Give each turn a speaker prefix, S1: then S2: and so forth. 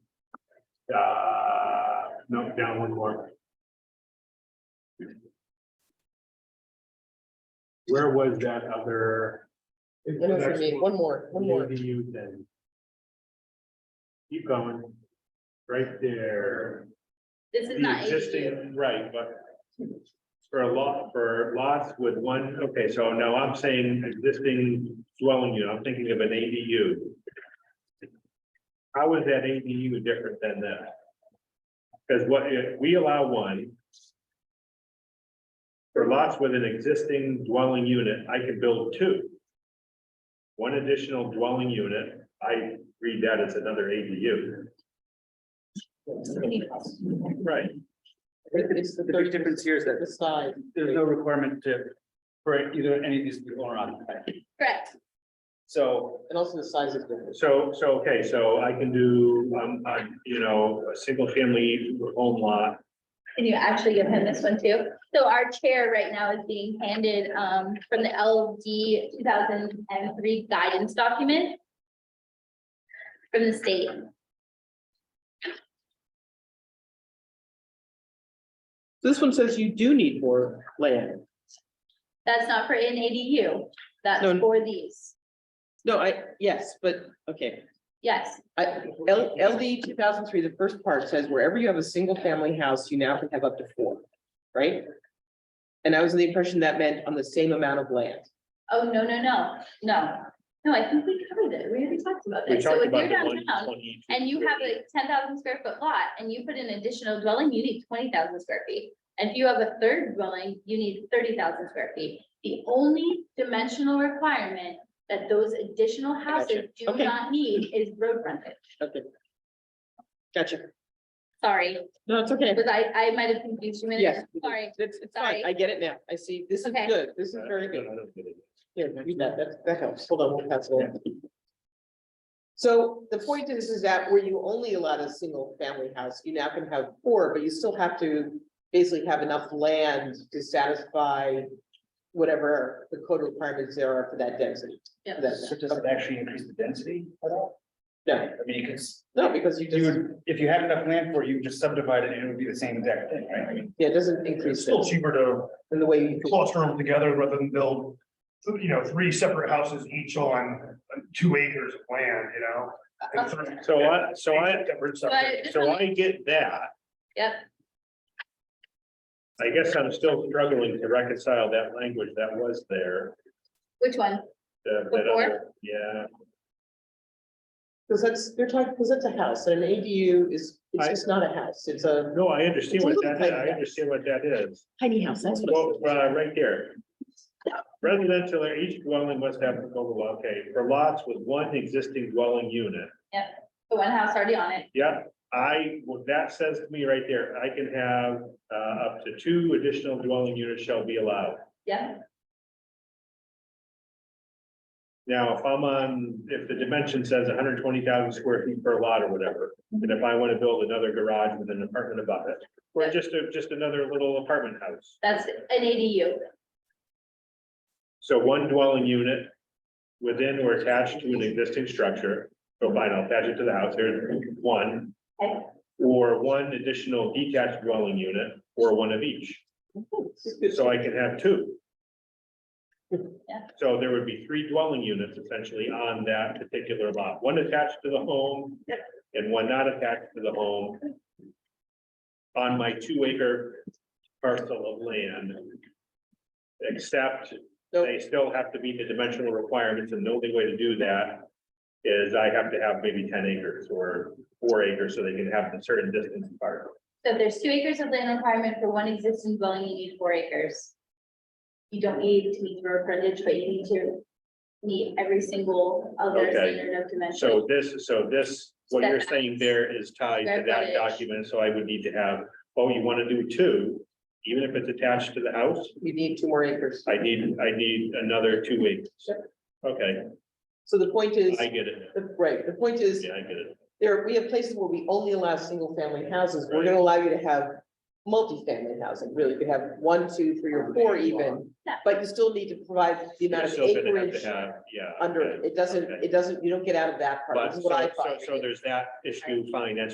S1: uh, no, down one more. Where was that other?
S2: One more for me, one more, one more.
S1: Do you then? Keep going, right there.
S3: This is not
S1: The
S3: ADU.
S1: Existing, right, but for a lot, for lots with one, okay, so now I'm saying existing dwelling unit, I'm thinking of an ADU. How is that ADU different than this? Because what, if we allow one for lots with an existing dwelling unit, I could build two. One additional dwelling unit, I read that as another ADU. Right.
S2: It's
S4: The
S2: the
S4: big
S2: third,
S4: difference here is that
S2: the side.
S4: there's no requirement to, for either any of these to be owner occupied.
S3: Correct.
S1: So
S2: And also the size is different.
S1: So, so, okay, so I can do, um, um, you know, a single family home lot.
S3: Can you actually give him this one too? So our chair right now is being handed um from the LD two thousand and three guidance document. From the state.
S2: This one says you do need more land.
S3: That's not for an ADU. That's
S2: No.
S3: for these.
S2: No, I, yes, but, okay.
S3: Yes,
S2: I, L, LD two thousand three, the first part says wherever you have a single family house, you now can have up to four, right? And I was in the impression that meant on the same amount of land.
S3: Oh, no, no, no, no. No, I think we covered it. We already talked about
S1: We
S3: this. So
S1: talked
S3: if you're
S1: about the one
S3: downtown
S1: twenty.
S3: and you have a ten thousand square foot lot and you put an additional dwelling, you need twenty thousand square feet. And if you have a third dwelling, you need thirty thousand square feet. The only dimensional requirement that those additional
S2: gotcha.
S3: houses do
S2: Okay.
S3: not need is road frontage.
S2: Okay. Gotcha.
S3: Sorry,
S2: No, it's okay.
S3: because I, I might have confused you. a minute.
S2: Yes.
S3: Sorry.
S2: It's, it's fine.
S3: Sorry.
S2: I get it now. I see. This is
S3: Okay.
S2: good. This is very good.
S1: I don't get it.
S2: Yeah, you bet. that, that helps. Hold on, we'll pass it on. So the point is, is that where you only allowed a single family house, you now can have four, but you still have to basically have enough land to satisfy whatever the code requirements there are for that density.
S3: Yeah.
S2: for that-
S4: So does it actually increase the density at all?
S2: No,
S4: I mean, because
S2: no, because you
S4: you
S2: just,
S4: would, if you had enough land for it, you would just subdivide it and it would be the same exact thing, right? I mean,
S2: yeah, it doesn't
S5: It's
S2: increase
S5: still
S2: it
S5: cheaper to
S2: in the way you.
S5: cluster them together rather than build, you know, three separate houses each on two acres of land, you know? and three-
S1: So I, so I,
S5: Separate, separate.
S3: But
S1: so I get that.
S3: Yep.
S1: I guess I'm still struggling to reconcile that language that was there.
S3: Which one?
S1: that- that other- Yeah,
S2: Because that's, they're talking, because that's a house and an ADU is, it's
S1: I-
S2: just not a house. It's a
S1: no, I understand what that, is. I
S2: Yeah.
S1: understand what that is.
S2: tiny house. That's what.
S1: Well, uh, right there. Residential, or each dwelling must have, okay, for lots with one existing dwelling unit.
S3: The one house already on it.
S1: Yeah, I, what that says to me right there, I can have uh up to two additional dwelling units shall be allowed.
S3: Yeah.
S1: Now, if I'm on, if the dimension says hundred twenty thousand square feet per lot or whatever, and if I want to build another garage with an apartment above it. Or just a, just another little apartment house,
S3: That's an ADU.
S1: so one dwelling unit. Within or attached to an existing structure, so fine, I'll attach it to the house, there's one.
S3: Okay.
S1: Or one additional detached dwelling unit, or one of each. So I can have two.
S3: Yeah.
S1: So there would be three dwelling units essentially on that particular lot, one attached to the home and one not attached to the home. On my two acre parcel of land. Except they still have to meet the dimensional requirements and the only way to do that is I have to have maybe ten acres or four acres so they can have a certain distance apart.
S3: So if there's two acres of land requirement for one existing dwelling, you need four acres. You don't need to meet the road frontage, but you need to meet every single other
S1: Okay.
S3: standard of dimension.
S1: So this, so this, what you're saying there is tied to that
S3: Setbacks.
S1: document, so I would need to have, oh, you wanna do two? Even if it's attached to the house,
S2: You need two more acres.
S1: I need, I need another two acres. Okay,
S2: So the point is,
S1: I get it, now.
S2: the- right, the point is,
S1: yeah, I get it,
S2: there, we have places where we only allow single family houses, we're gonna allow you to have. Multifamily housing, really, you could have one, two, three, or four even,
S3: Yeah.
S2: but you still need to provide the
S1: you're
S2: amount of
S1: still gonna have
S2: acreage
S1: to have, yeah.
S2: under,
S1: okay.
S2: it doesn't,
S1: okay.
S2: it doesn't, you don't get out of that part,
S1: But
S2: this
S1: so,
S2: is what I
S1: so,
S2: find.
S1: so there's that issue, fine, that's